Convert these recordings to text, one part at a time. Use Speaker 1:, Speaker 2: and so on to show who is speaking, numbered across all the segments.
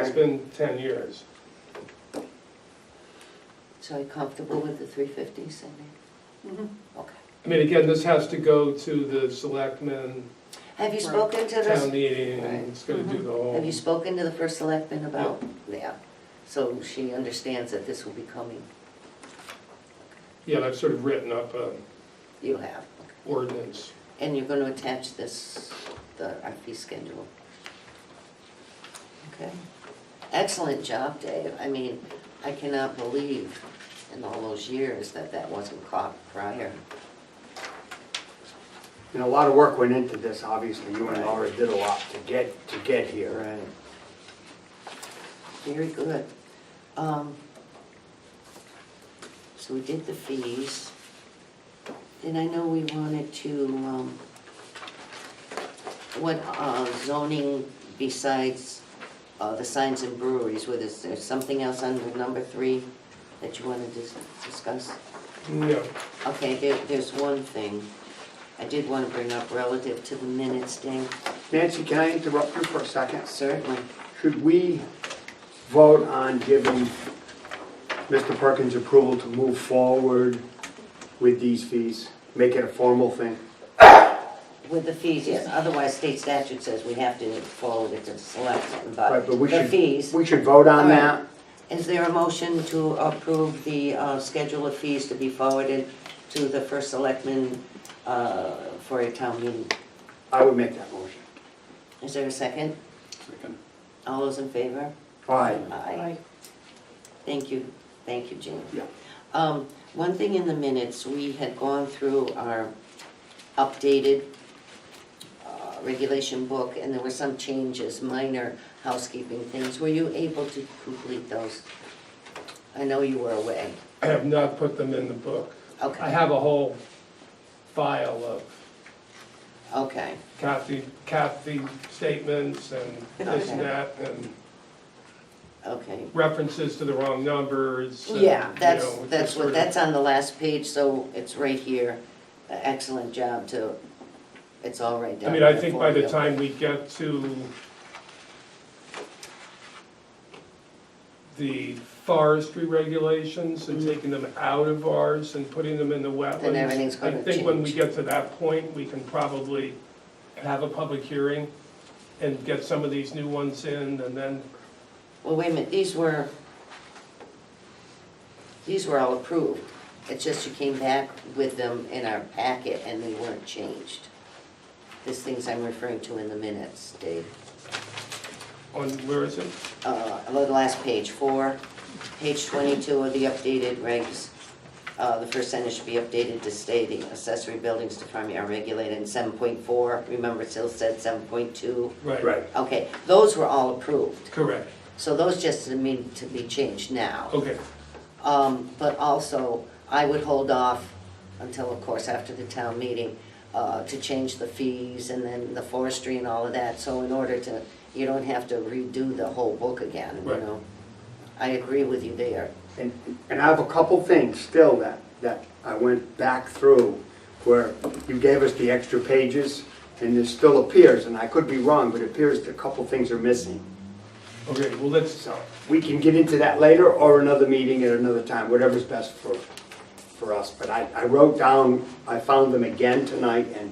Speaker 1: It's been ten years.
Speaker 2: So are you comfortable with the three fifty, Cindy? Okay.
Speaker 1: I mean, again, this has to go to the selectmen,
Speaker 2: Have you
Speaker 3: Right.
Speaker 2: spoken to
Speaker 1: town
Speaker 2: this,
Speaker 1: meeting, and it's gonna do the
Speaker 2: Mm-hmm. have
Speaker 1: whole.
Speaker 2: you spoken to the first selectman about that? So she understands that this will be coming,
Speaker 1: Yeah, I've sort of written up an
Speaker 2: you have.
Speaker 1: ordinance.
Speaker 2: And you're gonna attach this, the, our fee schedule. Okay. Excellent job, Dave. I mean, I cannot believe in all those years that that wasn't caught prior.
Speaker 4: And a lot of work went into this, obviously, you and Laura did a lot to get, to get here.
Speaker 2: Right. Very good. Um, So we did the fees. Then I know we wanted to, um, what uh, zoning besides uh, the signs and breweries, whether is there something else under number three that you wanted to dis- discuss?
Speaker 1: No,
Speaker 2: Okay, there, there's one thing I did want to bring up relative to the minutes, Dan,
Speaker 4: Nancy, can I interrupt you for a second?
Speaker 2: certainly.
Speaker 4: Should we vote on giving Mr. Perkins approval to move forward with these fees? Make it a formal thing?
Speaker 2: With the fees, yes, otherwise state statute says we have to follow it to select,
Speaker 4: Right,
Speaker 2: but
Speaker 4: but we
Speaker 2: Uh, the
Speaker 4: should,
Speaker 2: fees.
Speaker 4: we should vote on
Speaker 2: All right.
Speaker 4: that?
Speaker 2: Is there a motion to approve the uh, schedule of fees to be forwarded to the first selectman uh, for a town meeting?
Speaker 4: I would make that motion.
Speaker 2: Is there a second? All those in favor?
Speaker 4: Aye.
Speaker 2: Aye. Thank you, thank you, Jane.
Speaker 4: Yeah.
Speaker 2: Um, One thing in the minutes, we had gone through our updated uh, regulation book, and there were some changes, minor housekeeping things. Were you able to complete those? I know you were away.
Speaker 1: I have not put them in the book. I
Speaker 2: Okay,
Speaker 1: have a whole file of
Speaker 2: okay,
Speaker 1: Kathy, Kathy statements and this and that, and
Speaker 2: okay.
Speaker 1: references to the wrong numbers. and,
Speaker 2: Yeah,
Speaker 1: you
Speaker 2: that's,
Speaker 1: know,
Speaker 2: that's
Speaker 1: sort
Speaker 2: what,
Speaker 1: of-
Speaker 2: that's on the last page, so it's right here. Excellent job to, it's all right
Speaker 1: I
Speaker 2: down
Speaker 1: mean, I
Speaker 2: there
Speaker 1: think
Speaker 2: for
Speaker 1: by the
Speaker 2: you.
Speaker 1: time we get to the forestry regulations and taking them out of ours and putting them in the wetlands.
Speaker 2: Mm-hmm. Then everything's gonna
Speaker 1: I think when we
Speaker 2: change.
Speaker 1: get to that point, we can probably have a public hearing and get some of these new ones in and then,
Speaker 2: Well, wait a minute, these were, these were all approved. It's just you came back with them in our packet and they weren't changed. These things I'm referring to in the minutes, Dave.
Speaker 1: on, where is it?
Speaker 2: Uh, the last page, four, page twenty-two of the updated regs. Uh, the first sentence should be updated to say the accessory buildings to farm are regulated in seven point four. Remember, it still said seven point two.
Speaker 4: Right.
Speaker 2: Okay, those were all approved.
Speaker 1: Correct,
Speaker 2: So those just need to be changed now.
Speaker 1: okay.
Speaker 2: Um, but also, I would hold off until, of course, after the town meeting, uh, to change the fees and then the forestry and all of that, so in order to, you don't have to redo the whole book again, you
Speaker 1: Right.
Speaker 2: know? I agree with you there.
Speaker 4: And, and I have a couple things still that, that I went back through where you gave us the extra pages and it still appears, and I could be wrong, but it appears that a couple things are missing.
Speaker 1: Okay, well, let's,
Speaker 4: So we can get into that later or another meeting at another time, whatever's best for, for us. But I, I wrote down, I found them again tonight and,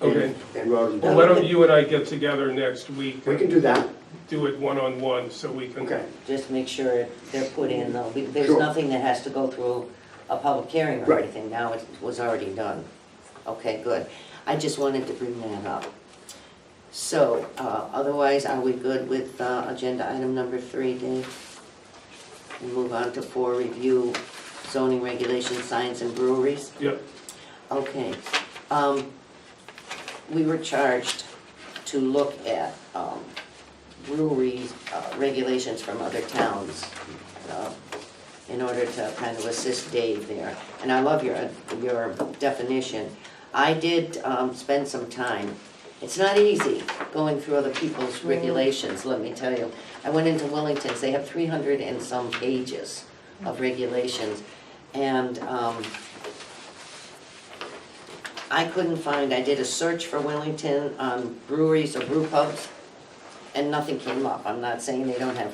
Speaker 1: Okay.
Speaker 4: and and wrote them
Speaker 1: well, why
Speaker 4: down.
Speaker 1: don't you and I get together next week?
Speaker 4: We can do that,
Speaker 1: Do it one-on-one so we can.
Speaker 4: okay.
Speaker 2: Just make sure they're put in, though. We- There's
Speaker 4: Sure.
Speaker 2: nothing that has to go through a public hearing or
Speaker 4: Right.
Speaker 2: anything. Now it was already done. Okay, good. I just wanted to bring that up. So, uh, otherwise, are we good with uh, agenda item number three, Dave? We move on to four, review zoning regulations, signs and breweries.
Speaker 1: Yep,
Speaker 2: Okay, um, we were charged to look at, um, breweries, uh, regulations from other towns, uh, in order to kind of assist Dave there, and I love your, your definition. I did, um, spend some time, it's not easy going through other people's regulations, let me tell you. I went into Wellington's, they have three hundred and some pages of regulations, and, um, I couldn't find, I did a search for um, Wellington on breweries or brew pubs, and nothing came up. I'm not saying they don't have